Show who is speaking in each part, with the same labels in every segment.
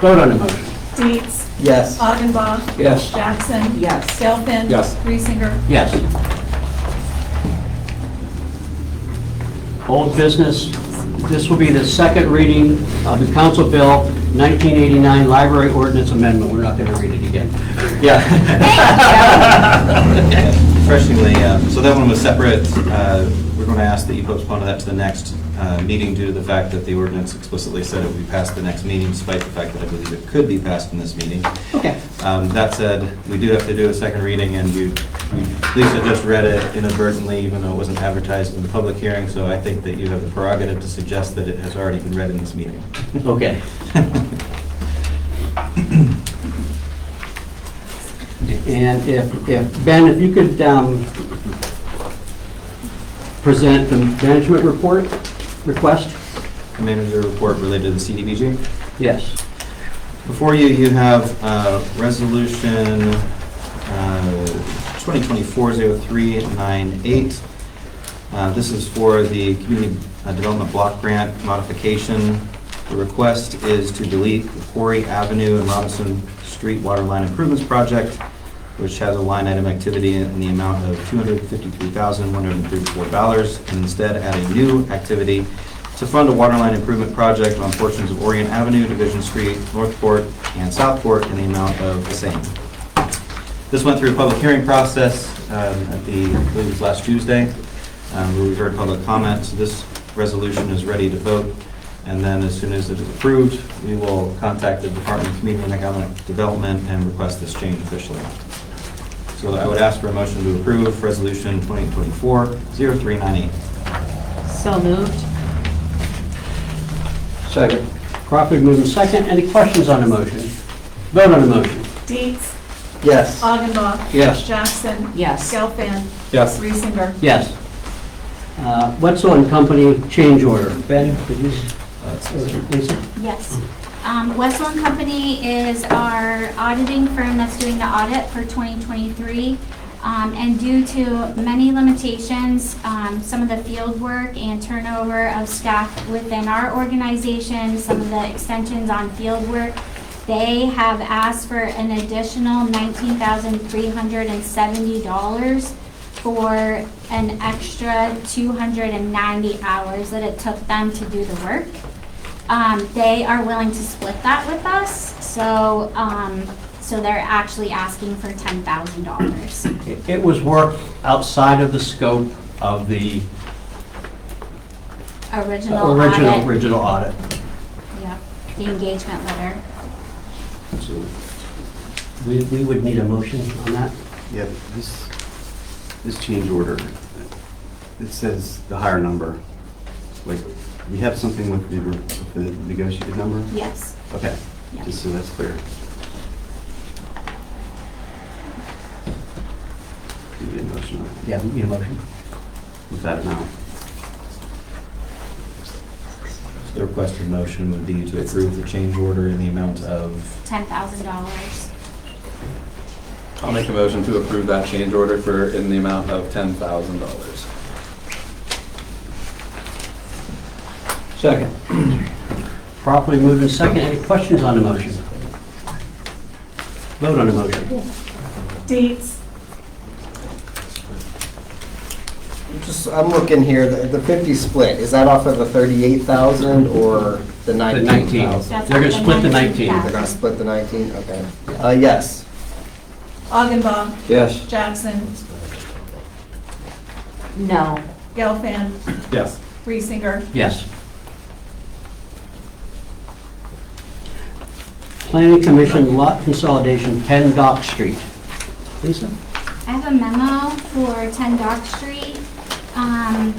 Speaker 1: Vote on the motion.
Speaker 2: Dietz.
Speaker 3: Yes.
Speaker 2: Augenbaum.
Speaker 1: Yes.
Speaker 2: Jackson.
Speaker 4: Yes.
Speaker 2: Gelfen.
Speaker 1: Yes.
Speaker 2: Reesinger.
Speaker 1: Yes. Old business, this will be the second reading of the council bill 1989 library ordinance amendment. We're not going to read it again. Yeah.
Speaker 3: Refreshingly, uh,
Speaker 5: So that one was separate. Uh, We're going to ask that you postpone that to the next uh, meeting due to the fact that the ordinance explicitly said it would be passed the next meeting, despite the fact that I believe it could be passed in this meeting.
Speaker 1: Okay.
Speaker 5: Um, That said, we do have to do a second reading, and you, you- Lisa just read it inadvertently, even though it wasn't advertised in the public hearing, so I think that you have the prerogative to suggest that it has already been read in this meeting.
Speaker 1: Okay. And if, if, Ben, if you could um, present the management report request?
Speaker 5: Manager report related to the CDBG?
Speaker 1: Yes.
Speaker 5: Before you, you have uh, Resolution uh, 2024-0398. Uh, This is for the Community uh, Development Block Grant modification. The request is to delete the Quarry Avenue and Robinson Street Waterline Improvements Project, which has a line item activity in the amount of $253,134, and instead add a new activity to fund a waterline improvement project on portions of Orient Avenue, Division Street, Northport, and Southport in the amount of the same. This went through a public hearing process um, at the, I believe it was last Tuesday, um, where we heard public comment. So This resolution is ready to vote, and then as soon as it is approved, we will contact the Department of Community and Economic Development and request this change officially. So I would ask for a motion to approve Resolution 2024-0398.
Speaker 4: So moved?
Speaker 1: Second. Crawford moving second. Any questions on the motion? Vote on the motion.
Speaker 2: Dietz.
Speaker 3: yes.
Speaker 2: Augenbaum.
Speaker 1: Yes.
Speaker 2: Jackson.
Speaker 4: Yes.
Speaker 2: Gelfen.
Speaker 5: Yes.
Speaker 2: Reesinger.
Speaker 1: Yes. Uh, Wetzel and Company change order. Ben, could you, Lisa?
Speaker 6: Yes. Um, Westland Company is our auditing firm that's doing the audit for 2023. Um, And due to many limitations, um, some of the field work and turnover of staff within our organization, some of the extensions on field work, they have asked for an additional $19,370 for an extra 290 hours that it took them to do the work. Um, they are willing to split that with us, so, um, so they're actually asking for ten thousand dollars.
Speaker 1: It- It was work outside of the scope of the
Speaker 6: Original
Speaker 1: original,
Speaker 6: audit.
Speaker 1: original audit.
Speaker 6: Yeah, the engagement letter.
Speaker 1: So We, we would need a motion on that.
Speaker 7: Yeah, but this, this change order, it says the higher number. Like, we have something with the, with the negotiated number?
Speaker 6: Yes,
Speaker 7: Okay,
Speaker 6: Yeah.
Speaker 7: just so that's clear. Do the motion on-
Speaker 1: Yeah, we need a motion.
Speaker 7: with that amount.
Speaker 5: The requested motion would be to approve the change order in the amount of,
Speaker 6: ten thousand dollars.
Speaker 8: I'll make a motion to approve that change order for, in the amount of ten thousand dollars.
Speaker 1: Second. Properly moved in second. Any questions on the motion? Vote on the motion.
Speaker 2: Dietz.
Speaker 3: Just, I'm looking here, the the 50 split, is that off of the 38,000 or the 19,000?
Speaker 6: That's
Speaker 1: They're gonna
Speaker 6: up to
Speaker 1: split the
Speaker 6: 19,000.
Speaker 1: 19.
Speaker 3: They're gonna split the 19, okay. Uh, yes.
Speaker 2: Augenbaum.
Speaker 1: Yes.
Speaker 2: Jackson.
Speaker 4: No.
Speaker 2: Gelfen.
Speaker 5: yes,
Speaker 2: Reesinger.
Speaker 1: Yes. Planning Commission lot consolidation, 10 Dock Street. Lisa?
Speaker 6: I have a memo for 10 Dock Street. Um,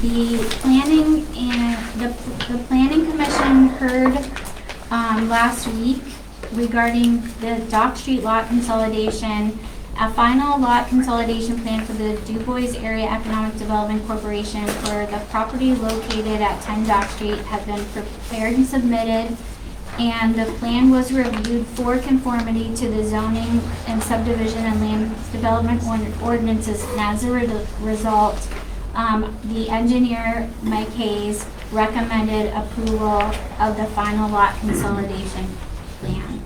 Speaker 6: The planning and, the the planning commission heard um, last week regarding the Dock Street lot consolidation. A final lot consolidation plan for the DuBois Area Economic Development Corporation for the property located at 10 Dock Street has been prepared and submitted and the plan was reviewed for conformity to the zoning and subdivision and land development ord- ordinances. And as a re- result, um, the engineer, Mike Hayes, recommended approval of the final lot consolidation